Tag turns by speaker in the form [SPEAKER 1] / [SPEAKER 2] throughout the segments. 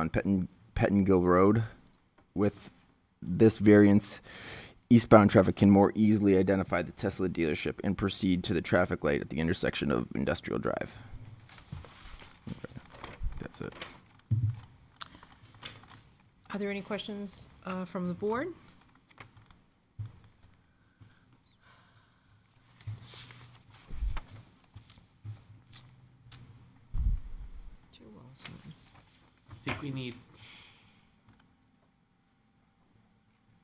[SPEAKER 1] on Pettin, Pettingill Road. With this variance, eastbound traffic can more easily identify the Tesla dealership and proceed to the traffic light at the intersection of Industrial Drive. Okay, That's it.
[SPEAKER 2] Are there any questions uh, from the board? Two wall signs.
[SPEAKER 3] think we need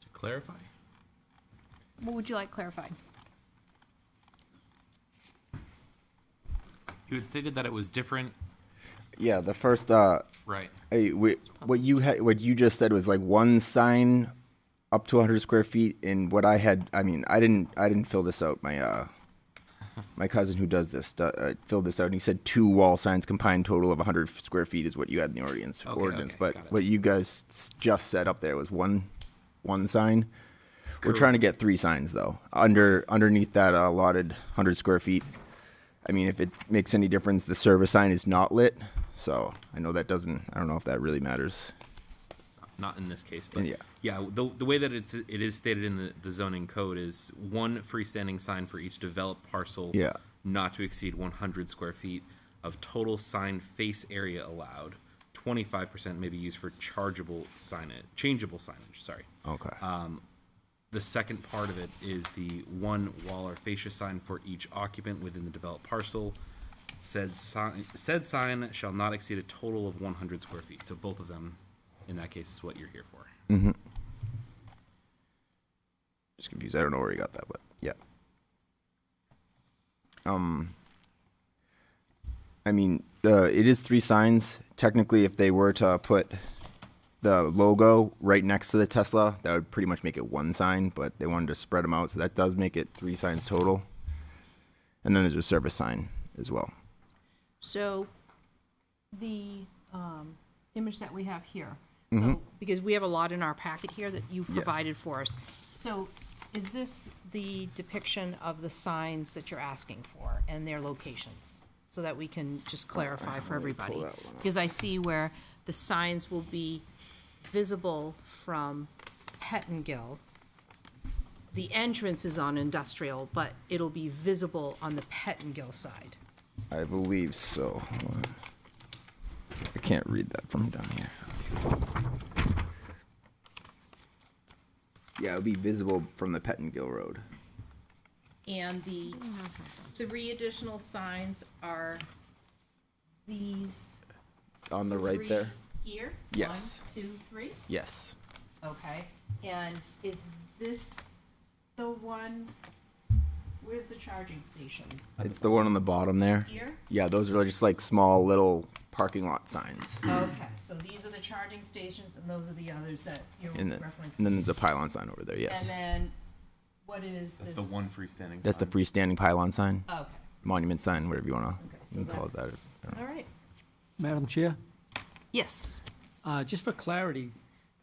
[SPEAKER 3] to clarify.
[SPEAKER 4] What would you like clarified?
[SPEAKER 3] You had stated that it was different,
[SPEAKER 1] Yeah, the first, uh,
[SPEAKER 3] right?
[SPEAKER 1] Hey, wait, what you had, what you just said was like one sign up to 100 square feet, and what I had, I mean, I didn't, I didn't fill this out. My, uh, my cousin who does this do- uh, filled this out, and he said two wall signs combined total of 100 square feet is what you had in the ordinance.
[SPEAKER 3] Okay,
[SPEAKER 1] ordinance,
[SPEAKER 3] okay, got
[SPEAKER 1] but
[SPEAKER 3] it.
[SPEAKER 1] what you guys s- just said up there was one, one sign. We're trying to get three signs though, under underneath that uh, allotted 100 square feet. I mean, if it makes any difference, the service sign is not lit. So I know that doesn't. I don't know if that really matters.
[SPEAKER 3] Not in this case, but
[SPEAKER 1] Yeah.
[SPEAKER 3] yeah, the, the way that it's it is stated in the, the zoning code is one freestanding sign for each developed parcel.
[SPEAKER 1] Yeah.
[SPEAKER 3] Not to exceed one hundred square feet of total sign face area allowed. Twenty five percent may be used for chargeable signage, changeable signage. Sorry.
[SPEAKER 1] Okay.
[SPEAKER 3] Uh, The second part of it is the one wall or fascia sign for each occupant within the developed parcel. Said sign, said sign shall not exceed a total of one hundred square feet. So both of them, in that case, is what you're here for.
[SPEAKER 1] Just confused. I don't know where you got that, but yeah. Um. I mean, the it is three signs. Technically, if they were to put the logo right next to the Tesla, that would pretty much make it one sign. But they wanted to spread them out, so that does make it three signs total. And then there's a service sign as well.
[SPEAKER 2] So the um, image that we have here, so, because we have a lot in our packet here that you provided for us. So is this the depiction of the signs that you're asking for and their locations? So that we can just clarify for everybody. Because I see where the signs will be visible from Pettingill. The entrance is on industrial, but it'll be visible on the Pettingill side.
[SPEAKER 1] I believe so. Hold on. I can't read that from down here. Yeah, it'll be visible from the Pettingill Road.
[SPEAKER 2] And the three additional signs are these
[SPEAKER 1] On the right
[SPEAKER 2] three
[SPEAKER 1] there?
[SPEAKER 2] here?
[SPEAKER 1] Yes.
[SPEAKER 2] One, two, three?
[SPEAKER 1] Yes.
[SPEAKER 2] Okay. And is this the one, where's the charging stations?
[SPEAKER 1] It's the one on the bottom there.
[SPEAKER 2] Here?
[SPEAKER 1] Yeah, those are just like small little parking lot signs.
[SPEAKER 2] Okay, so these are the charging stations and those are the others that you're
[SPEAKER 1] And then,
[SPEAKER 2] referencing.
[SPEAKER 1] and then there's a pylon sign over there,
[SPEAKER 2] And
[SPEAKER 1] yes.
[SPEAKER 2] then, what is this?
[SPEAKER 3] freestanding.
[SPEAKER 1] That's the freestanding pylon sign,
[SPEAKER 2] Okay,
[SPEAKER 1] monument sign, whatever you want
[SPEAKER 2] Okay, so
[SPEAKER 1] to call it that.
[SPEAKER 2] that's- all right.
[SPEAKER 5] Madam Chair,
[SPEAKER 2] Yes,
[SPEAKER 5] uh, just for clarity,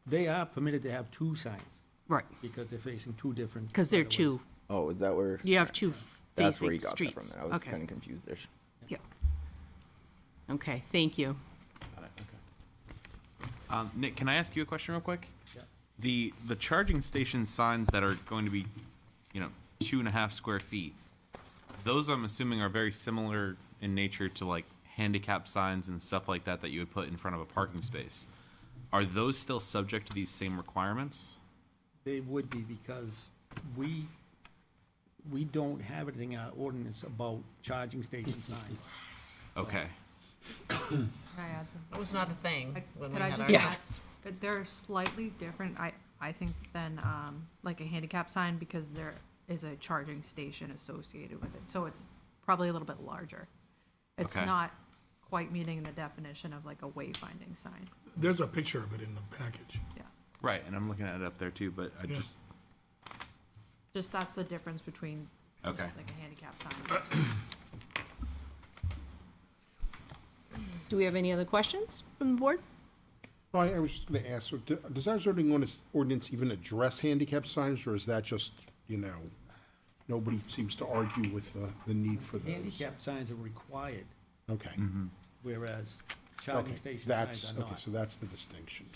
[SPEAKER 5] they are permitted to have two signs
[SPEAKER 2] right,
[SPEAKER 5] because they're facing two different.
[SPEAKER 2] because they're
[SPEAKER 5] right-of-ways.
[SPEAKER 2] two,
[SPEAKER 1] Oh, is that where?
[SPEAKER 2] you have two
[SPEAKER 1] That's where
[SPEAKER 2] facing
[SPEAKER 1] you got that
[SPEAKER 2] streets.
[SPEAKER 1] from. I was
[SPEAKER 2] Okay.
[SPEAKER 1] kind of confused there.
[SPEAKER 2] Yeah. Okay, thank you.
[SPEAKER 3] Um, Nick, can I ask you a question real quick? The the charging station signs that are going to be, you know, two and a half square feet. Those I'm assuming are very similar in nature to like handicap signs and stuff like that that you would put in front of a parking space. Are those still subject to these same requirements?
[SPEAKER 5] They would be because we, we don't have anything in our ordinance about charging station signs.
[SPEAKER 3] Okay.
[SPEAKER 6] Can I add something?
[SPEAKER 7] That was not a thing when we
[SPEAKER 6] Could I
[SPEAKER 7] had
[SPEAKER 6] just
[SPEAKER 7] our.
[SPEAKER 6] add- But they're slightly different, I, I think, than, um, like a handicap sign because there is a charging station associated with it. So it's probably a little bit larger. It's
[SPEAKER 3] Okay.
[SPEAKER 6] not quite meeting the definition of like a wayfinding sign,
[SPEAKER 8] There's a picture of it in the package.
[SPEAKER 6] yeah.
[SPEAKER 3] Right, and I'm looking at it up there too, but I
[SPEAKER 8] Yeah.
[SPEAKER 3] just
[SPEAKER 6] Just that's the difference between just
[SPEAKER 3] Okay.
[SPEAKER 6] like a handicap sign versus
[SPEAKER 2] Do we have any other questions from the board?
[SPEAKER 9] Well, I I was just going to ask, so do- does our zoning ordinance- ordinance even address handicap signs, or is that just, you know, nobody seems to argue with the, the need for those?
[SPEAKER 5] Handicap signs are required,
[SPEAKER 9] Okay,
[SPEAKER 5] whereas charging
[SPEAKER 9] Okay,
[SPEAKER 5] station
[SPEAKER 9] that's-
[SPEAKER 5] signs are not.
[SPEAKER 9] Okay, so that's the distinction.